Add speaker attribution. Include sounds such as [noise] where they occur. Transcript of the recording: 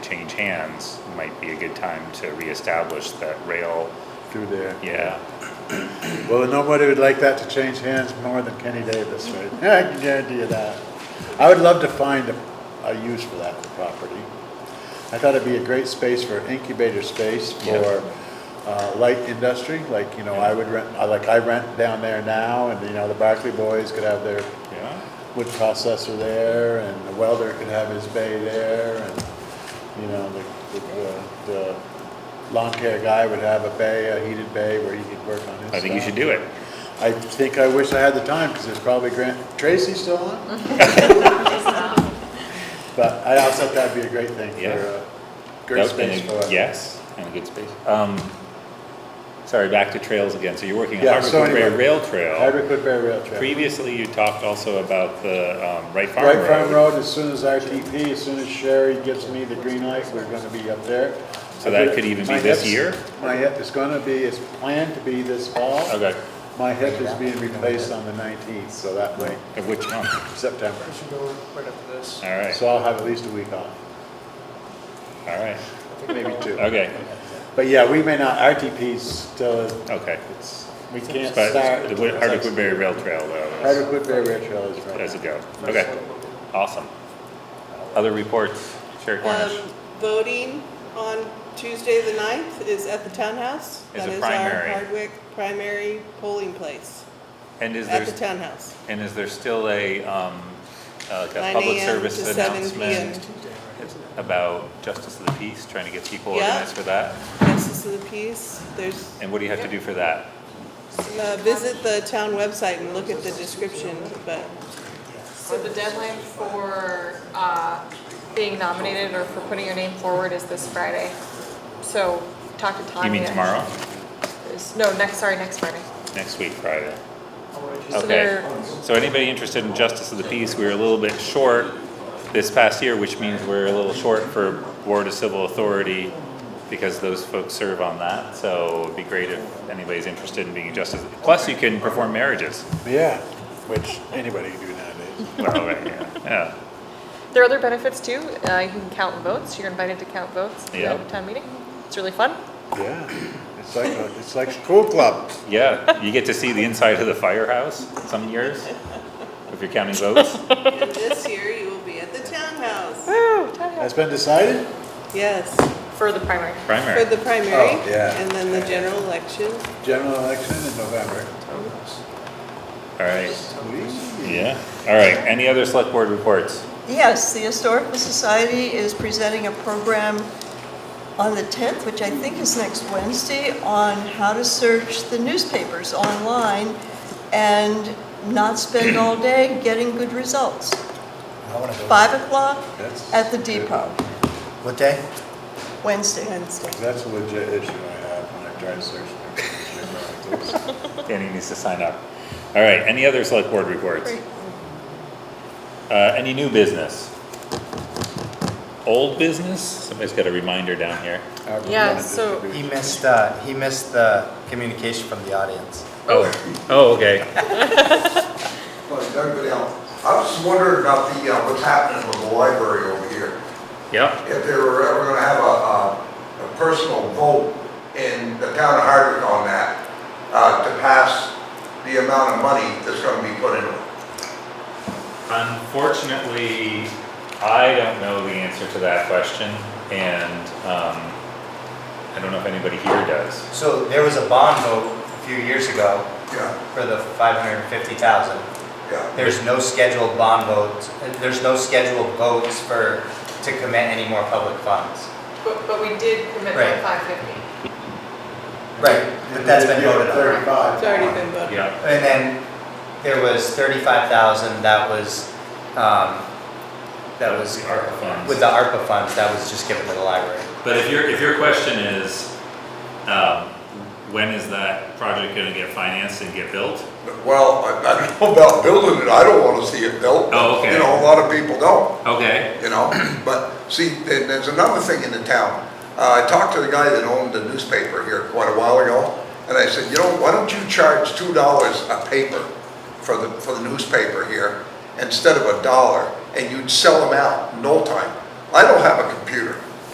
Speaker 1: change hands, might be a good time to reestablish that rail,
Speaker 2: through there.
Speaker 1: yeah.
Speaker 2: Well, nobody would like that to change hands more than Kenny Davis, right? [laughs] I can guarantee you that. I would love to find a, a use for that property. I thought it'd be a great space for incubator space for, uh, light industry, like, you know, I would rent, I like, I rent down there now, and, you know, the Barclay boys could have their
Speaker 1: Yeah.
Speaker 2: wood processor there, and the welder could have his bay there, and, you know, the, the- the, the lawn care guy would have a bay, a heated bay where he could work on his
Speaker 1: I think you
Speaker 2: stuff.
Speaker 1: should do it.
Speaker 2: I think I wish I had the time, because there's probably Grant, Tracy still on? But I also thought that'd be a great thing for,
Speaker 1: Yeah.
Speaker 2: uh,
Speaker 1: That
Speaker 2: great
Speaker 1: would've been a-
Speaker 2: space for.
Speaker 1: Yes, and a good space. Um, sorry, back to trails again. So you're working on
Speaker 2: Yeah,
Speaker 1: Hardwick
Speaker 2: so
Speaker 1: Woodbury
Speaker 2: anyway,
Speaker 1: Rail Trail.
Speaker 2: Hardwick Woodbury Rail Trail.
Speaker 1: Previously, you talked also about the, um, Wright Farm Road.
Speaker 2: Right Farm Road, as soon as RTP, as soon as Sherry gives me the green light, we're gonna be up there.
Speaker 1: So that could even be
Speaker 2: My
Speaker 1: this
Speaker 2: hip's-
Speaker 1: year?
Speaker 2: My hip is gonna be, it's planned to be this fall.
Speaker 1: Okay,
Speaker 2: My hip is being replaced on the nineteenth, so that way,
Speaker 1: of which month?
Speaker 2: September.
Speaker 3: I should go right after this.
Speaker 1: All right,
Speaker 2: So I'll have at least a week off,
Speaker 1: all right,
Speaker 2: maybe two.
Speaker 1: okay,
Speaker 2: But yeah, we may not, RTP's still,
Speaker 1: okay.
Speaker 2: it's, we can't
Speaker 1: But
Speaker 2: start.
Speaker 1: the Wood- Hardwick Woodbury Rail Trail though,
Speaker 2: Hardwick Woodbury Rail Trail is right.
Speaker 1: as a go. Okay, awesome. Other reports, Sherry Cornish?
Speaker 4: Um, Voting on Tuesday, the 9th, is at the townhouse.
Speaker 1: Is
Speaker 4: That
Speaker 1: a
Speaker 4: is our
Speaker 1: primary.
Speaker 4: Hardwick primary polling place,
Speaker 1: And is
Speaker 4: at the
Speaker 1: there,
Speaker 4: townhouse.
Speaker 1: and is there still a, um, uh, like
Speaker 4: 9
Speaker 1: a public
Speaker 4: a.m. to
Speaker 1: service
Speaker 4: 7
Speaker 1: announcement
Speaker 4: p.m.
Speaker 1: about Justice of the Peace, trying to get people
Speaker 4: Yeah.
Speaker 1: organized for that?
Speaker 4: Justice of the Peace, there's,
Speaker 1: And what do you have to do for that?
Speaker 4: uh, visit the town website and look at the description, but
Speaker 5: So the deadline for uh, being nominated or for putting your name forward is this Friday. So talk to Tanya.
Speaker 1: You mean tomorrow?
Speaker 5: Is- No, next, sorry, next Friday.
Speaker 1: Next week, Friday?
Speaker 5: So
Speaker 1: Okay,
Speaker 5: they're-
Speaker 1: so anybody interested in justice of the peace, we were a little bit short this past year, which means we're a little short for Board of Civil Authority because those folks serve on that, so it'd be great if anybody's interested in being a justice. Plus, you can perform marriages.
Speaker 2: Yeah, which anybody can do nowadays. [laughs]
Speaker 1: Well, right, yeah,
Speaker 5: There are other benefits too. Uh, You can count votes. You're invited to count votes at the
Speaker 1: Yeah.
Speaker 5: end of town meeting. It's really fun.
Speaker 2: Yeah, it's like, a- it's like school club.
Speaker 1: yeah. Yeah, you get to see the inside of the firehouse some years, if you're counting
Speaker 4: [laughs]
Speaker 1: votes.
Speaker 4: and this year you will be at the townhouse.
Speaker 5: Woo, Tanya.
Speaker 2: That's been decided?
Speaker 4: Yes,
Speaker 5: For the primary.
Speaker 4: for
Speaker 1: Primary,
Speaker 4: the primary.
Speaker 2: Oh, yeah.
Speaker 4: And then the general election.
Speaker 2: General election in November.
Speaker 1: all right,
Speaker 2: Whee!
Speaker 1: yeah, all right, any other select board reports?
Speaker 6: Yes, the Historical Society is presenting a program on the 10th, which I think is next Wednesday, on how to search the newspapers online and not spend all day getting good results.
Speaker 3: I want to go.
Speaker 6: 5 o'clock
Speaker 2: That's
Speaker 6: at the
Speaker 2: good.
Speaker 6: depot,
Speaker 3: What day?
Speaker 6: Wednesday.
Speaker 4: Wednesday.
Speaker 2: That's a legit issue I have when I try to search. for newspapers.
Speaker 1: Danny needs to sign up. All right, any other select board reports?
Speaker 6: Great.
Speaker 1: Uh, any new business? Old business? Somebody's got a reminder down here.
Speaker 2: Our
Speaker 5: Yeah,
Speaker 2: representative
Speaker 5: so-
Speaker 2: should be-
Speaker 3: He missed, uh, he missed the communication from the audience.
Speaker 1: Oh, oh, okay.
Speaker 7: Well, Doug Goodell, I was just wondering about the, uh, what's happening with the library over here.
Speaker 1: Yep.
Speaker 7: If they were ever gonna have a, a, a personal vote in the town of Hardwick on that, uh, to pass the amount of money that's gonna be put into it.
Speaker 1: Unfortunately, I don't know the answer to that question, and, um, I don't know if anybody here does.
Speaker 3: So there was a bond vote a few years ago
Speaker 7: Yeah,
Speaker 3: for the five hundred and fifty thousand.
Speaker 7: yeah.
Speaker 3: There's no scheduled bond votes, uh, there's no scheduled votes for, to commit any more public funds.
Speaker 5: But, but we did commit
Speaker 3: Right.
Speaker 5: to 550.
Speaker 3: Right, but that's been voted on.
Speaker 2: Thirty-five.
Speaker 4: It's already been voted.
Speaker 1: Yeah.
Speaker 3: And then there was thirty-five thousand that was, um, that was.
Speaker 1: The ARPA funds.
Speaker 3: With the ARPA funds, that was just given to the library.
Speaker 1: But if your, if your question is, um, when is that project gonna get financed and get built?
Speaker 7: Well, I, I don't know about building it, I don't wanna see it built.
Speaker 1: Oh, okay.
Speaker 7: You know, a lot of people don't.
Speaker 1: Okay.
Speaker 7: you know? [clears throat] But see, there- there's another thing in the town. Uh, I talked to the guy that owned the newspaper here quite a while ago, and I said, you know, why don't you charge two dollars a paper for the, for the newspaper here instead of a dollar, and you'd sell them out in no time. I don't have a computer.